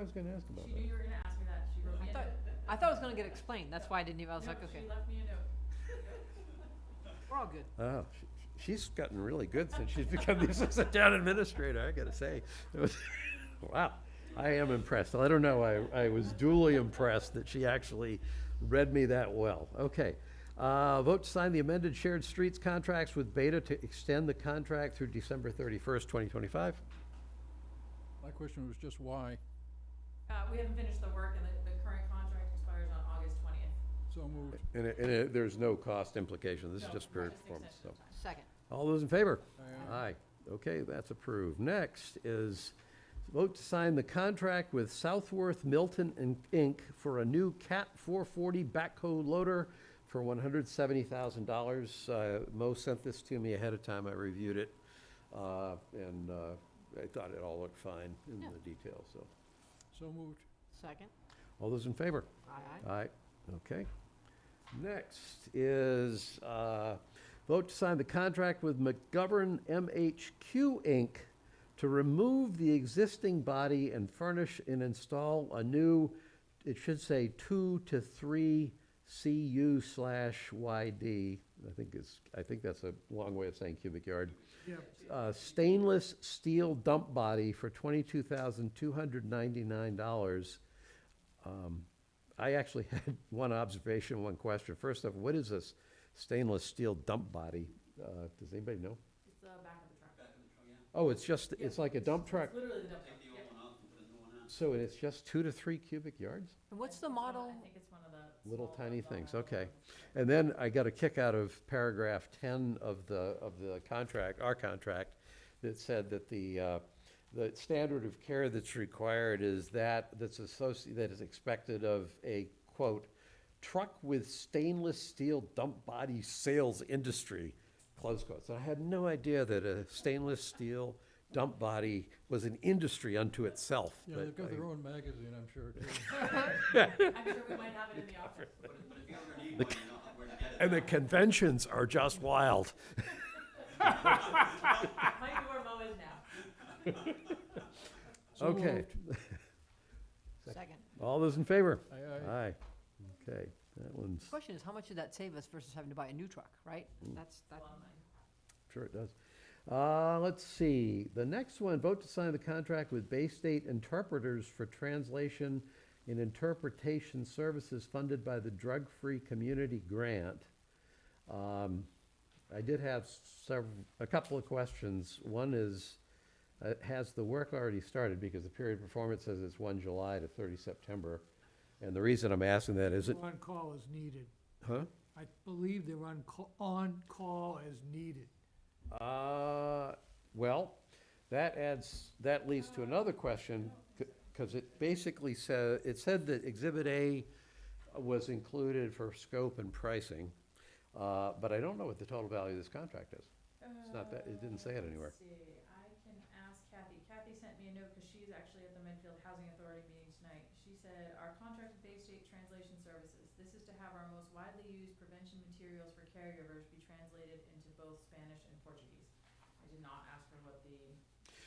I was gonna ask about She knew that. you were gonna ask me that, she wrote I me a thought, note. I thought it was gonna get explained, that's why I didn't even, I was No, like, okay, She left me a note. we're all good. Oh, she- she's gotten really good since she's become the assistant town administrator, I gotta say. It was- Wow, I am impressed. I don't know, I, I was duly impressed that she actually read me that well. Okay. Uh, vote to sign the amended shared streets contracts with Beta to extend the contract through December thirty-first, twenty twenty-five. My question was just why, Uh, we haven't finished the work and the, the current contract expires on August twentieth. so moved. And, it- and it- there's no cost implication, this is just pure performance, so. Second, All those in favor? Aye. Aye. Okay, that's approved. Next is vote to sign the contract with Southworth Milton and Inc. for a new Cat 440 backhoe loader for $170,000. Uh, Mo sent this to me ahead of time. I reviewed it, uh, and uh, I thought it all looked fine in Yeah. the detail, so. So moved. second, All those in favor? aye, aye, Aye, okay. Next is, uh, vote to sign the contract with McGovern MHQ Inc. to remove the existing body and furnish and install a new, it should say two to three CU slash YD. I think it's, I think that's a long way of saying cubic yard. Uh, stainless steel dump body for twenty-two thousand two hundred ninety-nine dollars. I actually had one observation, one question. First off, what is this stainless steel dump body? Uh, Does anybody know? It's the back of the truck. Oh, it's just, it's like a dump truck, It's literally the dump truck, Take the yeah. old one off and put a new one on. so it's just two to three cubic yards? and what's It's the one of- model, I think it's one of the. Little small tiny ones on things, the- okay. And then I got a kick out of paragraph ten of the, of the contract, our contract, that said that the, uh, the standard of care that's required is that, that's associated, that is expected of a, quote, truck with stainless steel dump body sales industry, close quotes. And I had no idea that a stainless steel dump body was an industry unto itself. Yeah, but they've got I- their own magazine, I'm sure, too. I'm sure we might have it in the office. But but if you ever need one, you know where to get it. And the conventions are just wild. Might be where Mo is now. So Okay. moved. second. All those in favor? Aye, aye. Aye. Okay, that one's, Question is, how much did that save us versus having to buy a new truck, right? That's, that, Well, mine. sure it does. Uh, let's see, the next one, vote to sign the contract with Bay State Interpreters for translation and interpretation services funded by the Drug Free Community Grant. Um, I did have several, a couple of questions. One is, uh, has the work already started? Because the period of performance says it's one July to thirty September. And the reason I'm asking that is it, On-call is needed. huh? I believe they're on, ca- on-call as needed. Uh, well, that adds, that leads to another question, because it basically said, it said that Exhibit A was included for scope and pricing, uh, but I don't know what the total value of this contract is. It's not that- it didn't say it Uh, anywhere. Let's see, I can ask Kathy. Kathy sent me a note because she's actually at the Medfield Housing Authority meeting tonight. She said, our contract with Bay State Translation Services, this is to have our most widely used prevention materials for caregivers be translated into both Spanish and Portuguese. I did not ask her what the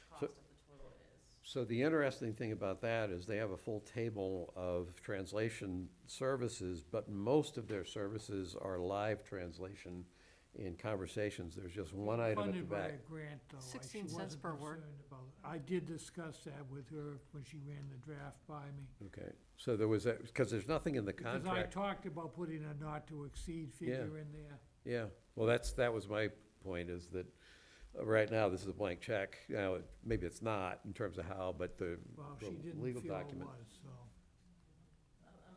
cost of the total is. So the interesting thing about that is they have a full table of translation services, but most of their services are live translation in conversations. There's just one item at the Funded by back. a grant, though. I- she 16 cents wasn't per word. concerned about it. I did discuss that with her when she ran the draft by me. Okay, so there was, because there's nothing in the Because I contract. talked about putting a not-to-exceed figure in there. Yeah, well, that's, that was my point, is that uh, right now, this is a blank check. Now, it- maybe it's not in terms of how, but the Well, the she didn't legal feel it document. was, so. Um, um,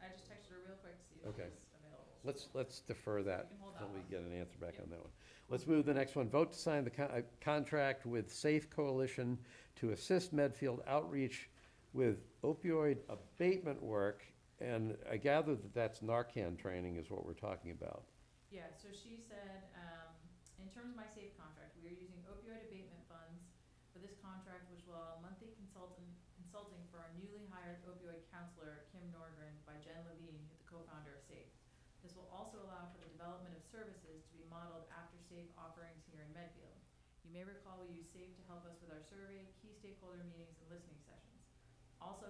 uh, I just texted her real quick to see if Okay. she's available. Let's, let's defer that can hold until that we one. get an answer back Yep. on that one. Let's move to the next one. Vote to sign the con- uh, contract with Safe Coalition to assist Medfield outreach with opioid abatement work. And I gather that that's Narcan training is what we're talking about. Yeah, so she said, um, in terms of my SAFE contract, we are using opioid abatement funds for this contract, which will allow monthly consultant, consulting for our newly hired opioid counselor, Kim Nordgren, by Jen Levine, the co-founder of SAFE. This will also allow for the development of services to be modeled after SAFE offerings here in Medfield. You may recall we use SAFE to help us with our survey, key stakeholder meetings, and listening sessions. Also